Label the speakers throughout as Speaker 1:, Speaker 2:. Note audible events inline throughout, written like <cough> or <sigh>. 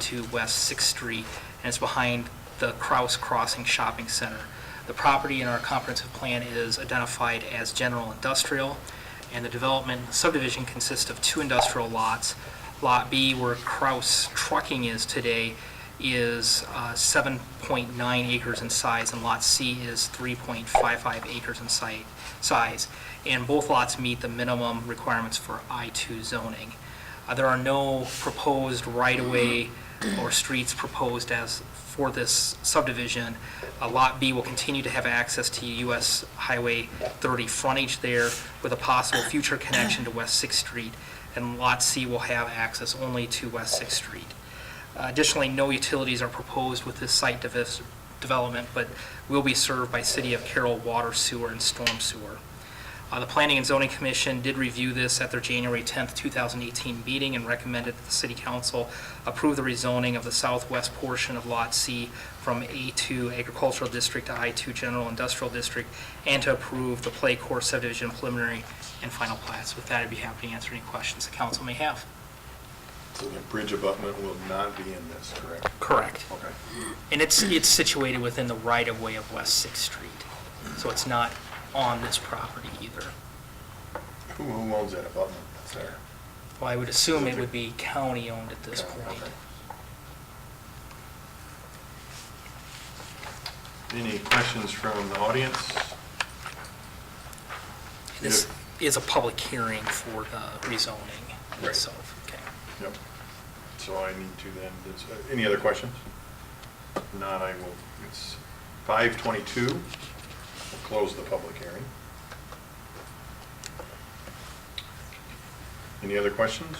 Speaker 1: to West Sixth Street, and it's behind the Kraus Crossing Shopping Center. The property in our comprehensive plan is identified as general industrial, and the development subdivision consists of two industrial lots. Lot B, where Kraus Trucking is today, is uh, 7.9 acres in size, and Lot C is 3.55 acres in site, size. And both lots meet the minimum requirements for I-2 zoning. Uh, There are no proposed right-of-way or streets proposed as for this subdivision. Uh, Lot B will continue to have access to US Highway 30 frontage there with a possible future connection to West Sixth Street, and Lot C will have access only to West Sixth Street. Uh, Additionally, no utilities are proposed with this site devis- development, but will be served by City of Carroll water, sewer, and storm sewer. Uh, The Planning and Zoning Commission did review this at their January 10th, 2018 meeting and recommended that the City Council approve the rezoning of the southwest portion of Lot C from A2 Agricultural District to I2 General Industrial District, and to approve the Play Course subdivision preliminary and final plats. With that, I'd be happy to answer any questions the council may have.
Speaker 2: So the bridge abutment will not be in this, correct?
Speaker 1: Correct.
Speaker 2: Okay.
Speaker 1: And it's, it's situated within the right-of-way of West Sixth Street, so it's not on this property either.
Speaker 2: Who who owns that abutment that's there?
Speaker 1: Well, I would assume it would be county-owned at this
Speaker 2: Okay,
Speaker 1: point.
Speaker 2: okay. Any questions from the audience?
Speaker 1: This is a public hearing for the rezoning
Speaker 2: Right.
Speaker 1: itself. Okay.
Speaker 2: Yep. So I need to then, does- uh, any other questions? If Not, I will, it's 5:22, we'll close the public hearing. Any other questions?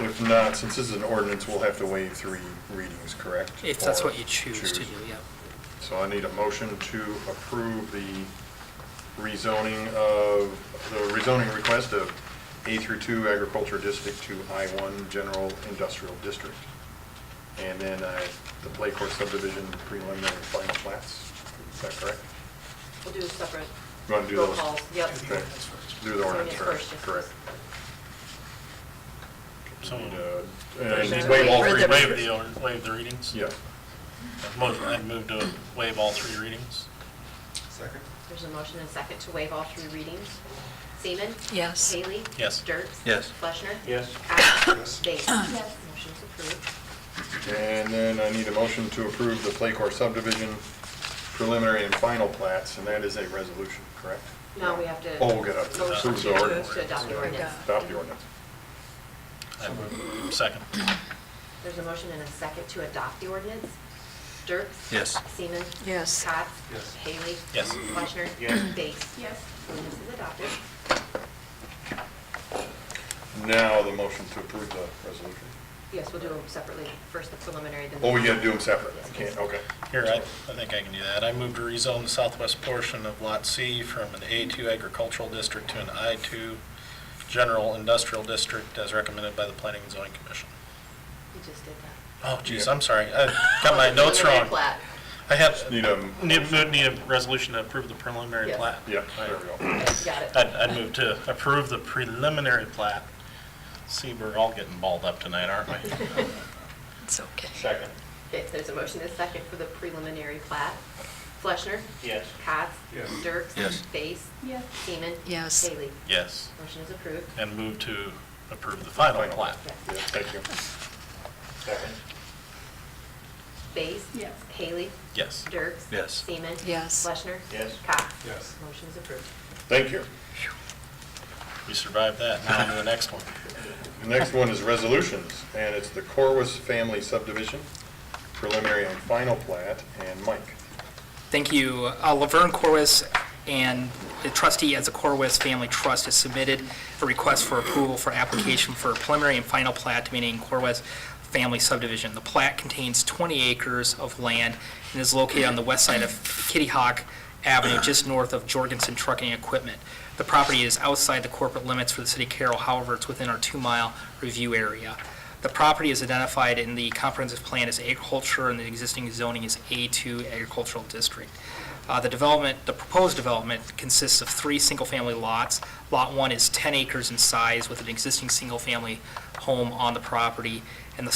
Speaker 2: If not, since this is an ordinance, we'll have to waive three readings, correct?
Speaker 1: If that's
Speaker 2: Or
Speaker 1: what you choose to do, yeah.
Speaker 2: So I need a motion to approve the rezoning of, the rezoning request of A through 2 agriculture district to I-1 general industrial district. And then uh, the Play Court subdivision preliminary and final plats. Is that correct?
Speaker 3: We'll do a separate
Speaker 2: You want to do
Speaker 3: roll
Speaker 2: those?
Speaker 3: calls. Yep.
Speaker 2: Okay. Do the ordinance
Speaker 3: Yeah,
Speaker 2: first,
Speaker 3: first, yes.
Speaker 2: correct.
Speaker 4: So-
Speaker 2: Need, uh, And
Speaker 3: Waive
Speaker 2: waive all
Speaker 3: the
Speaker 2: three,
Speaker 4: Waive the, waive the readings?
Speaker 2: yeah.
Speaker 4: Motion, I move to waive all three readings.
Speaker 3: There's a motion and second to waive all three readings. Seaman?
Speaker 5: Yes.
Speaker 3: Haley?
Speaker 4: Yes.
Speaker 3: Dirks?
Speaker 6: Yes.
Speaker 3: Fleischner?
Speaker 4: Yes.
Speaker 3: Cowan? Yes. Yes. Motion's approved.
Speaker 2: And then I need a motion to approve the Play Court subdivision preliminary and final plats, and that is a resolution, correct?
Speaker 3: Now we have to.
Speaker 2: Oh, we'll get up to that.
Speaker 3: Motion
Speaker 2: Approve the ordinance.
Speaker 3: To adopt the ordinance.
Speaker 2: Adopt the ordinance.
Speaker 4: I move, second.
Speaker 3: There's a motion and a second to adopt the ordinance. Dirks?
Speaker 6: Yes.
Speaker 3: Seaman?
Speaker 5: Yes.
Speaker 3: Cox? Yes. Haley?
Speaker 4: Yes.
Speaker 3: Fleischner? Yes. Bates? Yes. Ordinance is adopted.
Speaker 2: Now the motion to approve the resolution.
Speaker 3: Yes, we'll do them separately. First the preliminary, then. the-
Speaker 2: Oh, we gotta do them separately, I can't, okay.
Speaker 4: Here, I, I think I can do that. I move to rezone the southwest portion of Lot C from an A2 agricultural district to an I2 general industrial district as recommended by the Planning and Zoning Commission.
Speaker 3: You just did that.
Speaker 4: Oh, geez, I'm sorry. I got my
Speaker 3: <laughs>
Speaker 4: notes
Speaker 3: Preliminary
Speaker 4: wrong.
Speaker 3: plat.
Speaker 4: I have,
Speaker 2: Need um, a,
Speaker 4: need, need a resolution to approve the preliminary
Speaker 3: Yes.
Speaker 4: plat.
Speaker 2: yeah, there we go.
Speaker 3: Got it.
Speaker 4: I'd, I'd move to approve the preliminary plat. See, we're all getting balled up tonight, aren't we?
Speaker 5: It's okay.
Speaker 4: Second.
Speaker 3: <laughs> Okay, so there's a motion and a second for the preliminary plat. Fleshner.
Speaker 4: Yes.
Speaker 3: Cots. Dirks.
Speaker 6: Yes.
Speaker 3: Base. Yes. Seaman.
Speaker 5: Yes.
Speaker 3: Haley.
Speaker 4: Yes,
Speaker 3: Motion is approved.
Speaker 4: and move to approve the final
Speaker 2: Final.
Speaker 4: plat.
Speaker 3: Yes.
Speaker 2: Yeah, Thank you.
Speaker 3: Base. Yes. Haley.
Speaker 4: Yes.
Speaker 3: Dirks.
Speaker 6: Yes.
Speaker 3: Seaman.
Speaker 5: Yes.
Speaker 3: Fleshner.
Speaker 4: Yes.
Speaker 3: Cots.
Speaker 2: Yes.
Speaker 3: Motion is approved.
Speaker 2: Thank you.
Speaker 4: We survived that, Uh, now on to the next one.
Speaker 2: The next one is resolutions, and it's the Corwus Family Subdivision, preliminary and final plat, and Mike.
Speaker 1: Thank you. Uh, Laverne Corwis and the trustee as a Corwis Family Trust has submitted a request for approval for application for a preliminary and final plat to meeting Corwis Family Subdivision. The plat contains 20 acres of land and is located on the west side of Kitty Hawk Avenue, just north of Jorgensen Trucking Equipment. The property is outside the corporate limits for the city of Carroll, however, it's within our two-mile review area. The property is identified in the comprehensive plan as agriculture, and the existing zoning is A2 agricultural district. Uh, The development, the proposed development consists of three single-family lots. Lot 1 is 10 acres in size with an existing single-family home on the property, and the